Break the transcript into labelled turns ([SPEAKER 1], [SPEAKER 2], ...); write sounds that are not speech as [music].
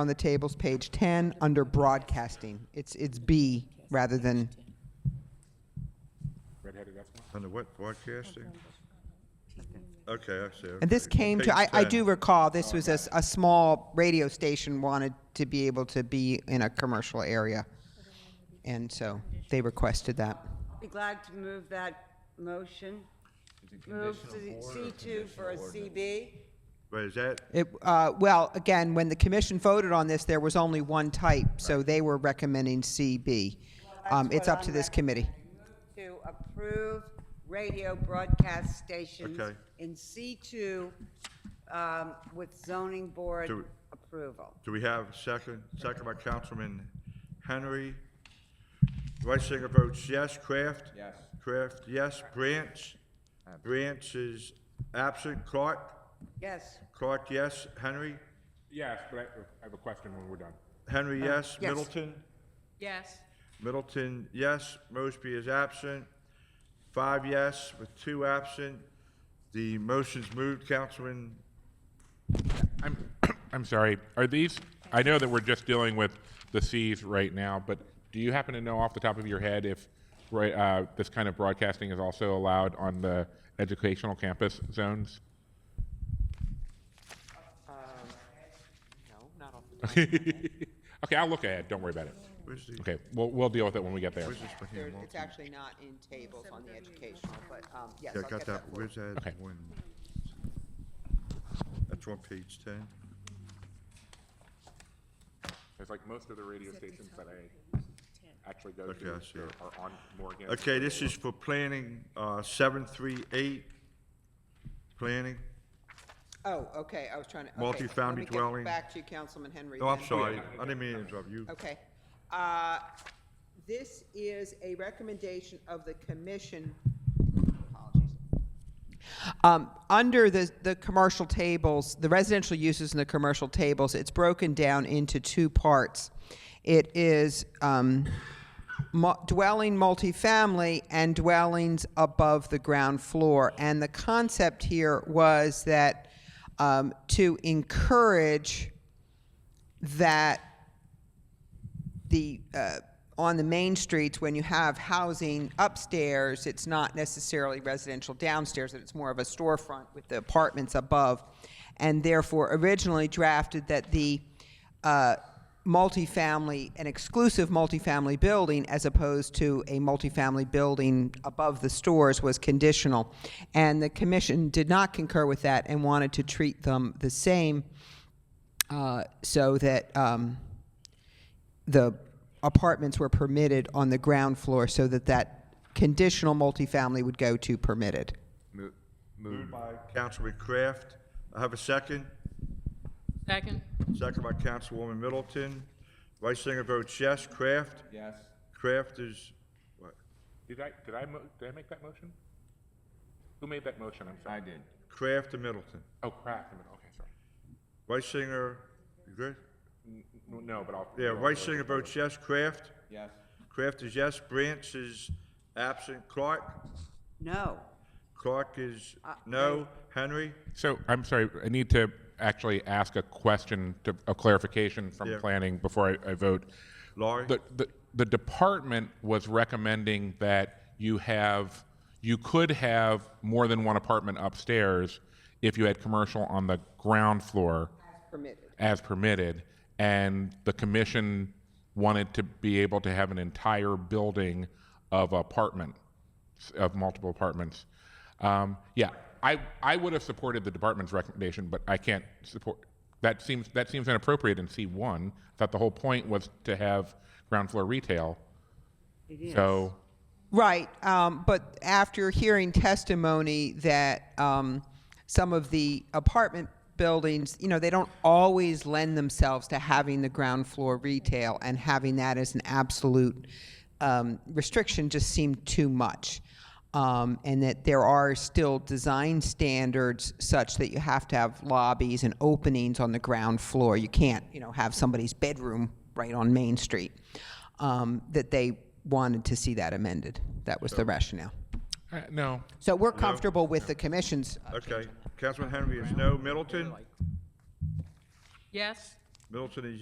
[SPEAKER 1] on the tables, page 10, under broadcasting. It's, it's B rather than,
[SPEAKER 2] Under what, broadcasting? Okay, I see.
[SPEAKER 1] and this
[SPEAKER 2] okay.
[SPEAKER 1] came to, I,
[SPEAKER 2] Page
[SPEAKER 1] I
[SPEAKER 2] 10.
[SPEAKER 1] do recall, this was a, s- a small radio station wanted to be able to be in a commercial area. And so they requested that.
[SPEAKER 3] Be glad to move that motion. Move to C two for a CB.
[SPEAKER 2] Wait, is that,
[SPEAKER 1] It, uh, well, again, when the commission voted on this, there was only one type, so they were recommending CB. Um,
[SPEAKER 3] That's
[SPEAKER 1] it's
[SPEAKER 3] what
[SPEAKER 1] up to
[SPEAKER 3] I'm
[SPEAKER 1] this committee.
[SPEAKER 3] recommending. To approve radio broadcast stations
[SPEAKER 2] Okay.
[SPEAKER 3] in C two, um, with zoning board
[SPEAKER 2] Do-
[SPEAKER 3] approval.
[SPEAKER 2] do we have second, second by Councilman Henry? Reisinger votes yes. Kraft? Yes. Kraft, yes. Branch? Branch is absent. Clark?
[SPEAKER 3] Yes,
[SPEAKER 2] Clark, yes. Henry?
[SPEAKER 4] Yes, but I- I have a question when we're done.
[SPEAKER 1] Uh,
[SPEAKER 2] Henry, yes.
[SPEAKER 3] yes.
[SPEAKER 2] Middleton?
[SPEAKER 5] Yes.
[SPEAKER 2] Middleton, yes. Mosby is absent. Five yes, with two absent. The motion's moved. Councilman
[SPEAKER 4] I'm, [coughs] I'm sorry, are these, I know that we're just dealing with the Cs right now, but do you happen to know off the top of your head if right, uh, this kind of broadcasting is also allowed on the educational campus zones? [laughs] Okay, I'll look ahead, don't worry about it.
[SPEAKER 2] Where's the,
[SPEAKER 4] Okay, we'll, we'll deal with it when we get there.
[SPEAKER 2] where's this one here?
[SPEAKER 1] It's actually not in tables on the educational, but, um, yes,
[SPEAKER 2] Yeah,
[SPEAKER 1] I'll
[SPEAKER 2] I got
[SPEAKER 1] get
[SPEAKER 2] that,
[SPEAKER 1] that. for you.
[SPEAKER 2] where's that
[SPEAKER 4] Okay.
[SPEAKER 2] one? That's on page ten.
[SPEAKER 4] It's like most of the radio stations that I actually go
[SPEAKER 2] Okay, I see
[SPEAKER 4] to
[SPEAKER 2] it.
[SPEAKER 4] are on Morgan.
[SPEAKER 2] Okay, this is for planning, uh, seven, three, eight. Planning,
[SPEAKER 1] Oh, okay, I was trying to, okay.
[SPEAKER 2] Multi-family
[SPEAKER 1] let me get
[SPEAKER 2] dwelling.
[SPEAKER 1] Back to you, Councilman Henry.
[SPEAKER 2] oh, I'm
[SPEAKER 1] then.
[SPEAKER 2] sorry, I didn't mean to interrupt you.
[SPEAKER 1] Okay. Uh, This is a recommendation of the commission. Apologies. Um, Under the, the commercial tables, the residential uses and the commercial tables, it's broken down into two parts. It is um, mu- dwelling multifamily and dwellings above the ground floor. And the concept here was that um, to encourage that the uh, on the main streets when you have housing upstairs it's not necessarily residential downstairs that it's more of a storefront with the apartments above and therefore originally drafted that the uh, multifamily an exclusive multifamily building as opposed to a multifamily building above the stores was conditional and the commission did not concur with that and wanted to treat them the same uh, so that um, the apartments were permitted on the ground floor so that that conditional multifamily would go to permitted.
[SPEAKER 2] Moved by Councilman Kraft, I have a second,
[SPEAKER 5] Second?
[SPEAKER 2] second by Councilwoman Middleton. Vice Singer votes yes, Kraft? Yes. Kraft is, what,
[SPEAKER 4] Did I, did I, mo- did I make that motion? Who made that motion? I'm sorry. I did.
[SPEAKER 2] Kraft and Middleton.
[SPEAKER 4] Oh, crap. Okay, sorry.
[SPEAKER 2] Vice Singer, you good?
[SPEAKER 4] N- No, but I'll.
[SPEAKER 2] Yeah,
[SPEAKER 4] I'll-
[SPEAKER 2] Rice Singer votes yes. Kraft? Yes. Kraft is yes. Branch is absent. Clark?
[SPEAKER 3] no.
[SPEAKER 2] Clark is no. Henry?
[SPEAKER 4] So, I'm sorry, I need to actually ask a question to, a clarification from
[SPEAKER 2] Yeah.
[SPEAKER 4] planning before I, I vote.
[SPEAKER 2] Laurie?
[SPEAKER 4] The, the, the department was recommending that you have, you could have more than one apartment upstairs if you had commercial on the ground floor.
[SPEAKER 1] Permitted.
[SPEAKER 4] as permitted, and the commission wanted to be able to have an entire building of apartment, of multiple apartments. Um, yeah, I, I would have supported the department's recommendation, but I can't support, that seems, that seems inappropriate in C1. That the whole point was to have ground floor retail. So,
[SPEAKER 1] Right, um, but after hearing testimony that um, some of the apartment buildings, you know, they don't always lend themselves to having the ground floor retail, and having that as an absolute um, restriction just seemed too much. Um, and that there are still design standards such that you have to have lobbies and openings on the ground floor. You can't, you know, have somebody's bedroom right on Main Street. Um, that they wanted to see that amended. That was the rationale.
[SPEAKER 4] uh, no,
[SPEAKER 1] So we're comfortable with the commission's.
[SPEAKER 2] Okay. Councilman Henry is no. Middleton?
[SPEAKER 5] Yes?
[SPEAKER 2] Middleton is